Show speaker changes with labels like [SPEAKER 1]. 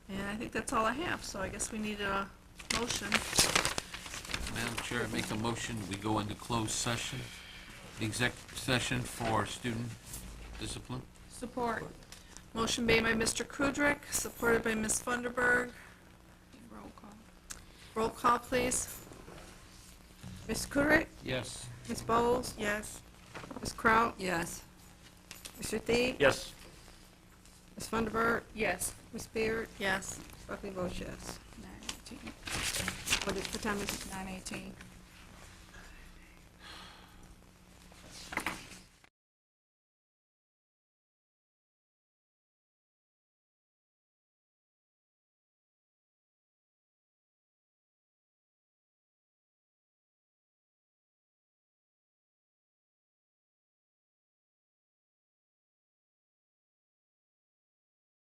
[SPEAKER 1] I think that's all I have, so I guess we need a motion.
[SPEAKER 2] Madam Chair, I make a motion, we go into closed session, the exec session for student discipline.
[SPEAKER 1] Support. Motion made by Mr. Kudrick, supported by Ms. Funderburg.
[SPEAKER 3] Roll call.
[SPEAKER 1] Roll call, please.
[SPEAKER 4] Ms. Kudrick?
[SPEAKER 2] Yes.
[SPEAKER 4] Ms. Bowles?
[SPEAKER 1] Yes.
[SPEAKER 4] Ms. Kraut?
[SPEAKER 3] Yes.
[SPEAKER 4] Mr. Thied?
[SPEAKER 5] Yes.
[SPEAKER 4] Ms. Funderburg?
[SPEAKER 3] Yes.
[SPEAKER 4] Ms. Beard?
[SPEAKER 1] Yes.
[SPEAKER 4] Buckley votes yes.
[SPEAKER 3] Nine eighteen.
[SPEAKER 4] What is, what time is it?
[SPEAKER 3] Nine eighteen.